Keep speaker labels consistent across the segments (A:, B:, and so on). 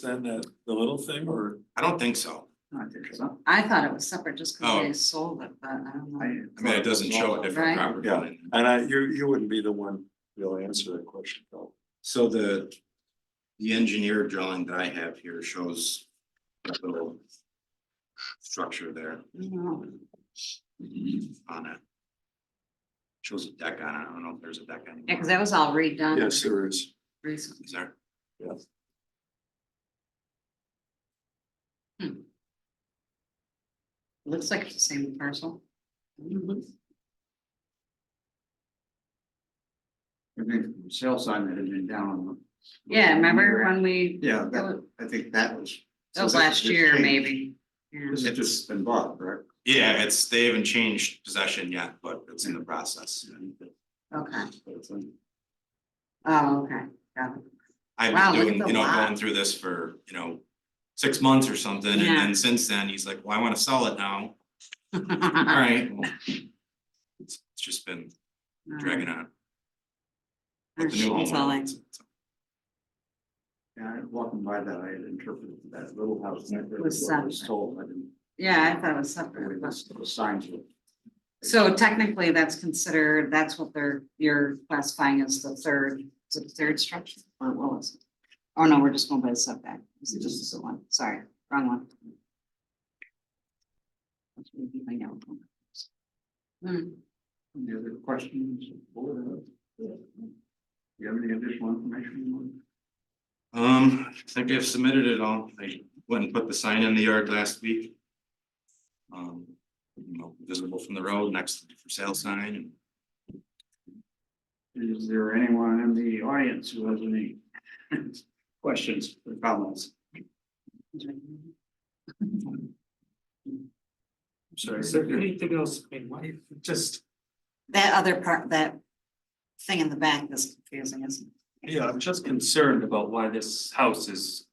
A: Then that, the little thing or?
B: I don't think so.
C: No, I think so. I thought it was separate just
B: Oh.
C: because they sold it, but I don't know.
B: I mean, it doesn't show a different
C: Right.
B: property.
A: Yeah.
B: line.
A: And I, you, you wouldn't be the one really answer that question though.
B: So the, the engineer drawing that I have here shows that little structure there
C: No,
B: on it. Shows a deck on it. I don't know if there's a deck on it.
C: Yeah, because that was all
A: Yes,
C: redone
A: there is.
C: recently.
B: Is there?
A: Yes.
C: Looks like it's the same parcel.
D: I think the sale sign that had been down on the.
C: Yeah, remember when we,
D: Yeah,
C: that
D: that, I think that was.
C: that was
D: so this
C: last
D: just
C: year
D: changed.
C: maybe. Yeah.
D: This has just been bought, correct?
B: Yeah, it's, they haven't changed possession yet, but it's in the process.
C: Okay,
D: That's it.
C: oh, okay, got it.
B: I've
C: Wow,
B: been
C: look at
B: doing,
C: the
B: you know,
C: lot.
B: going through this for, you know, six months or something, and
C: Yeah.
B: then since then, he's like, well, I wanna sell it now. All
C: Uh-huh.
B: right. well, It's, it's just been dragging on.
C: Or
B: with the new
C: she's all
B: homeowner.
C: like,
D: Yeah, I- walking by that, I had interpreted that little house. that really
C: Was
D: Was
C: separate.
D: sold, I didn't,
C: Yeah, I thought it was
D: the way
C: separate. but-
D: those those signs were.
C: So technically, that's considered, that's what they're, you're classifying as the third, is it the third structure? Or what was it? Oh, no, we're just going by the setback. This is just the one. Sorry, wrong one. That's what we find out. Hmm,
D: Any other questions? board? Do You have any additional information?
B: Um, I think I've submitted it all. I went and put the sign in the yard last week. Um, you know, visible from the road next to the for sale sign and
D: Is there anyone in the audience who has any questions or comments? Sorry,
E: Is there anything else, I mean, why, just,
C: That other part, that thing in the back is confusing, isn't it?
E: yeah, I'm just concerned about why this house is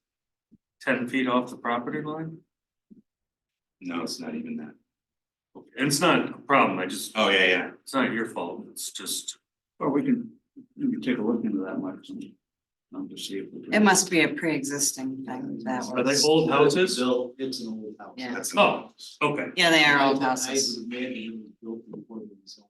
E: ten feet off the property line.
B: no, it's not even that.
E: And it's not a problem, I just,
B: Oh, yeah, yeah.
E: it's not your fault, it's just,
D: Or we can, we can take a look into that, Mike, and, um, to see if. we can-
C: It must be a pre-existing thing that
E: are they
C: was.
E: old houses?
F: Built, it's an old house.
C: Yeah.
B: That's
E: Oh, okay,
C: Yeah, they are old
F: I-
C: houses.
F: I would imagine it was built before it was sold.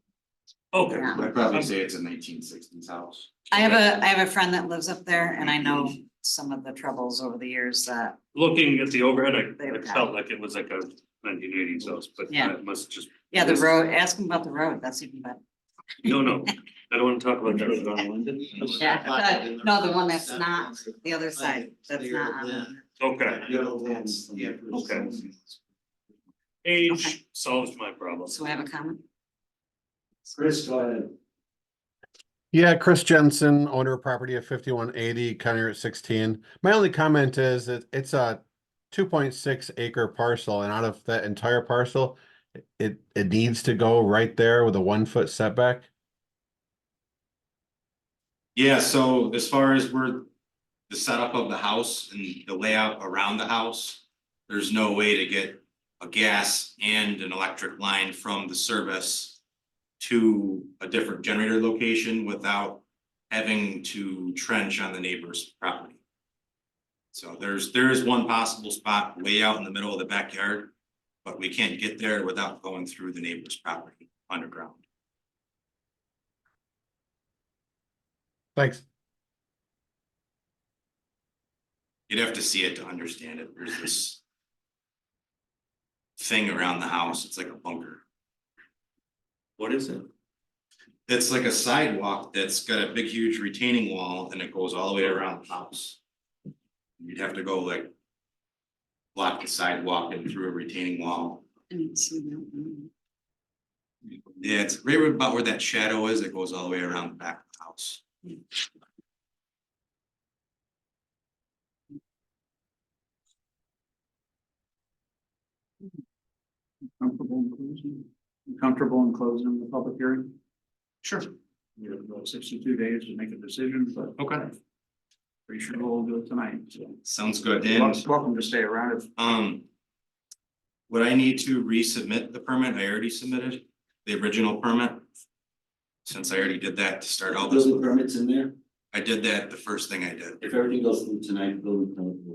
E: okay.
C: Yeah.
B: I'd probably say it's a nineteen sixties house.
C: I have a, I have a friend that lives up there and I know some of the troubles over the years that,
E: Looking at the overhead, I,
C: They
E: I
C: would
E: felt like it was like a nineteen eighties house, but
C: Yeah.
E: that must just,
C: yeah, the
E: Yes.
C: road, ask him about the road, that's even better.
E: no, no, I don't wanna talk about that.
C: Yeah,
F: Yeah.
C: but- no, the one that's not, the other side, that's not um, on.
F: Yeah.
C: there.
E: Okay,
F: You know, that's, yeah.
E: Okay. age solves my problem.
C: So we have a comment?
F: Chris, go ahead.
G: Yeah, Chris Jensen, owner of property at fifty-one eighty, County Route sixteen. My only comment is that it's a two point six acre parcel, and out of that entire parcel, it, it needs to go right there with a one-foot setback.
B: Yeah, so as far as where the setup of the house and the layout around the house, there's no way to get a gas and an electric line from the service to a different generator location without having to trench on the neighbor's property. So there's, there is one possible spot way out in the middle of the backyard, but we can't get there without going through the neighbor's property underground.
G: Thanks.
B: You'd have to see it to understand it, there's this. Thing around the house, it's like a bunker,
E: What is it?
B: it's like a sidewalk that's got a big huge retaining wall and it goes all the way around the house. You'd have to go like. Block the sidewalk and through a retaining wall,
C: I didn't see that one.
B: yeah, it's right about where that shadow is, it goes all the way around the back of the house.
D: Comfortable in closing, comfortable in closing the public hearing? Sure. We have about sixty-two days to make a decision, but.
E: Okay.
D: Pretty sure we'll do it tonight, so.
B: Sounds good, and
D: Welcome to stay around if
B: Um. Would I need to resubmit the permit? I already submitted the original permit. Since I already did that to start all this,
F: Building permits in there,
B: I did that the first thing I did.
F: if everything goes through tonight, building permit will